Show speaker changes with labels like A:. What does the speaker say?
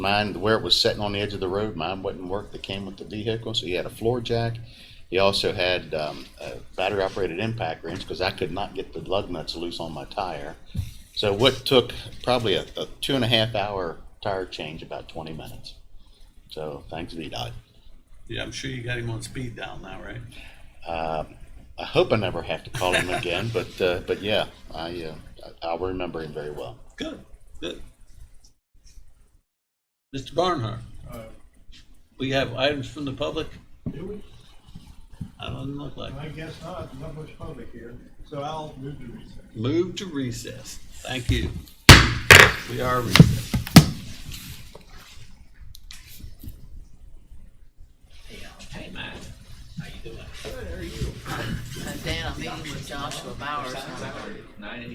A: Mine, where it was sitting on the edge of the road, mine wouldn't work that came with the vehicle, so he had a floor jack. He also had, um, a battery operated impact wrench, cause I could not get the lug nuts loose on my tire. So what took probably a, a two and a half hour tire change, about twenty minutes. So thanks VDOT.
B: Yeah, I'm sure you got him on speed dial now, right?
A: I hope I never have to call him again, but, uh, but yeah, I, uh, I- I'll remember him very well.
B: Good, good. Mr. Barnhart,
C: Uh,
B: we have items from the public?
C: Do we?
B: I don't look like.
C: I guess not, not much public here, so I'll move to recess.
B: Move to recess. Thank you. We are recessed.
D: Hey, Matt, how you doing?
E: And Dan, I'm meeting with Joshua Bowers on
D: Nine